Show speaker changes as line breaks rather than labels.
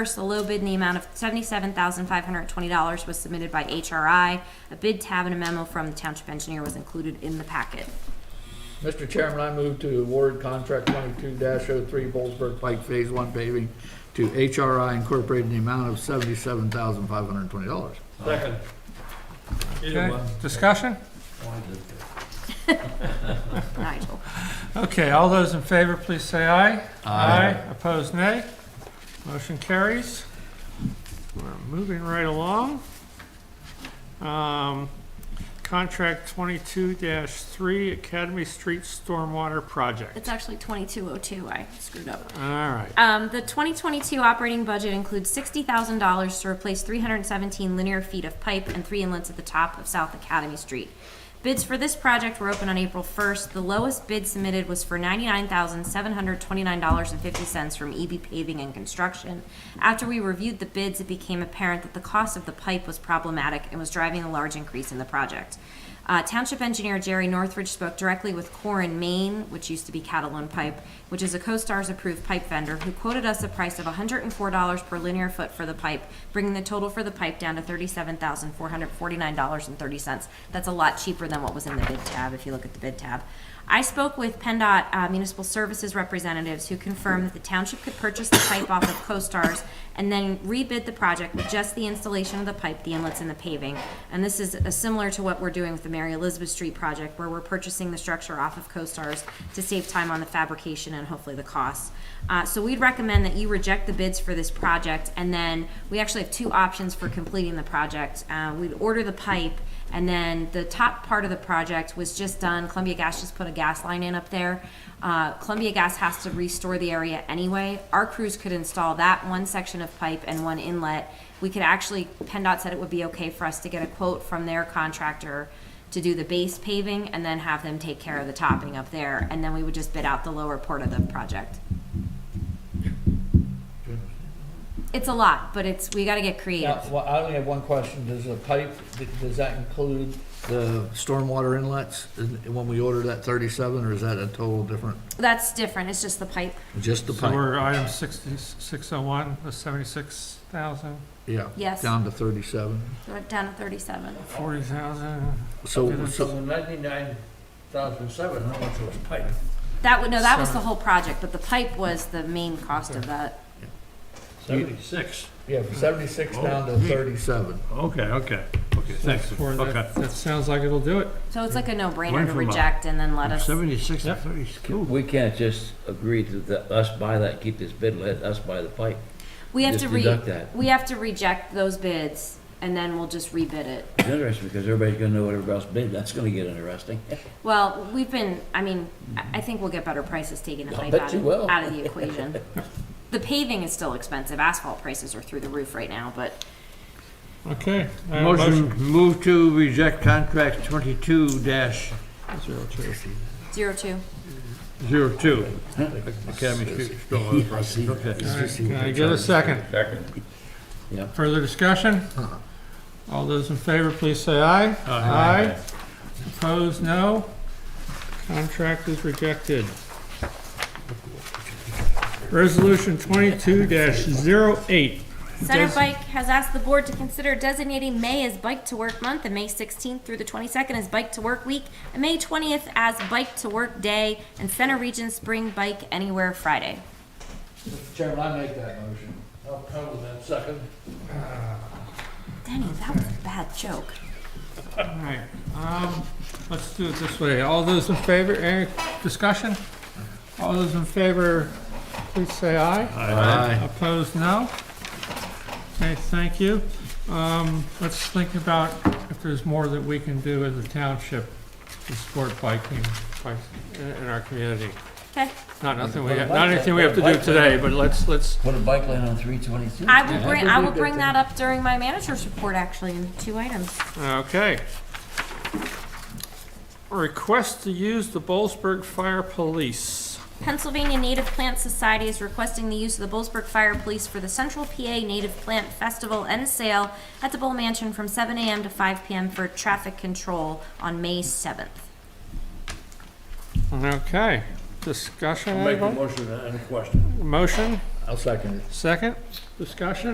First, the low bid in the amount of seventy-seven thousand five hundred twenty dollars was submitted by HRI. A bid tab and a memo from the township engineer was included in the packet.
Mr. Chairman, I move to award contract twenty-two 3 Bollesburg Pike Phase One paving to HRI Incorporated in the amount of seventy-seven thousand five hundred and twenty dollars.
Second. Either
Okay,
one.
discussion?
Nigel?
Okay, all those in favor, please say aye. Aye. Opposed, nay. Motion carries. We're moving right along. Um, Contract twenty-two three, Academy Street Stormwater Project.
It's actually twenty-two oh two, I screwed up.
All right,
Um, the 2022 operating budget includes $60,000 to replace 317 linear feet of pipe and three inlets at the top of South Academy Street. Bids for this project were open on April 1st. The lowest bid submitted was for $99,729.50 from EB Paving and Construction. After we reviewed the bids, it became apparent that the cost of the pipe was problematic and was driving a large increase in the project. Uh, Township engineer Jerry Northridge spoke directly with Corin Maine, which used to be Catalan Pipe, which is a CoStar's approved pipe vendor, who quoted us a price of $104 per linear foot for the pipe, bringing the total for the pipe down to $37,449.30. That's a lot cheaper than what was in the bid tab, if you look at the bid tab. I spoke with PennDOT uh, Municipal Services representatives who confirmed that the township could purchase the pipe off of CoStar's and then rebid the project with just the installation of the pipe, the inlets, and the paving. And this is uh, similar to what we're doing with the Mary Elizabeth Street project, where we're purchasing the structure off of CoStar's to save time on the fabrication and hopefully the costs. Uh, so we'd recommend that you reject the bids for this project, and then we actually have two options for completing the project. Uh, we'd order the pipe, and then the top part of the project was just done. Columbia Gas just put a gas line in up there. Uh, Columbia Gas has to restore the area anyway. Our crews could install that one section of pipe and one inlet. We could actually, PennDOT said it would be okay for us to get a quote from their contractor to do the base paving and then have them take care of the topping up there. And then we would just bid out the lower part of the project. It's a lot, but it's, we gotta get
Yeah,
creative.
well, I only have one question. Does the pipe, does that include the stormwater inlets in- when we order that thirty-seven, or is that a total different,
That's different. It's just the pipe.
just the
so
pipe?
we're item sixty, six oh one, the seventy-six thousand,
Yeah.
Yes.
Down to thirty-seven.
So we're Down to thirty-seven.
forty thousand.
So,
So
so,
the ninety-nine thousand seven, how much was paid?
That would, no, that was the
Sorry.
whole project, but the pipe was the main cost of that.
Seventy-six.
yeah, from seventy-six down to thirty-seven.
Okay, okay, okay, thanks,
For
okay.
that, that sounds like it'll do it.
So it's like a no-brainer
Went
to
from a-
reject and then let us,
Seventy-six to thirty, cool.
We can't just agree to the, us buy that, keep this bid, let us buy the pipe.
we have
just
to re,
deduct that.
we have to reject those bids and then we'll just rebid it.
It's interesting because everybody's gonna know what everybody else bid, that's gonna get interesting.
Well, we've been, I mean, I I think we'll get better prices taking the
I'll
pipe
bet
out
you
of,
will.
out of the equation. The paving is still expensive. Asphalt prices are through the roof right now, but
Okay. Uh, I have a
Motion, move to reject contract twenty-two dash
zero-two.
zero-two, Academy Street Stormwater Project.
All
Okay.
right, Can I get a second?
Yeah.
Further discussion? All those in favor, please say aye. Aye. Opposed, no. Contract is rejected. Resolution twenty-two 8
Center Bike has asked the board to consider designating May as Bike to Work Month and May 16th through the 22nd as Bike to Work Week and May 20th as Bike to Work Day and Center Region Spring Bike Anywhere Friday.
Mr. Chairman, I make that motion.
I'll cover that second.
Denny, that was a bad joke.
All right, um, let's do it this way. All those in favor, any discussion? All those in favor, please say aye.
Aye.
Opposed, no? Okay, thank you. Um, let's think about if there's more that we can do as a township to support biking, bikes in, in our community.
Okay.
Not nothing we, have- not anything we have to do today, but let's, let's,
Put a bike lane on three twenty-two.
I will bring, I will bring that up during my manager's report, actually, in two items.
okay. Request to use the Bollesburg Fire Police.
Pennsylvania Native Plant Society is requesting the use of the Bollesburg Fire Police for the Central PA Native Plant Festival and Sale at the Bull Mansion from 7 a.m. to 5 p.m. for traffic control on May 7th.
Okay, discussion,
Make the
anybody? Uh-huh.
motion and question.
Motion?
I
I'll second it.
Second, discussion?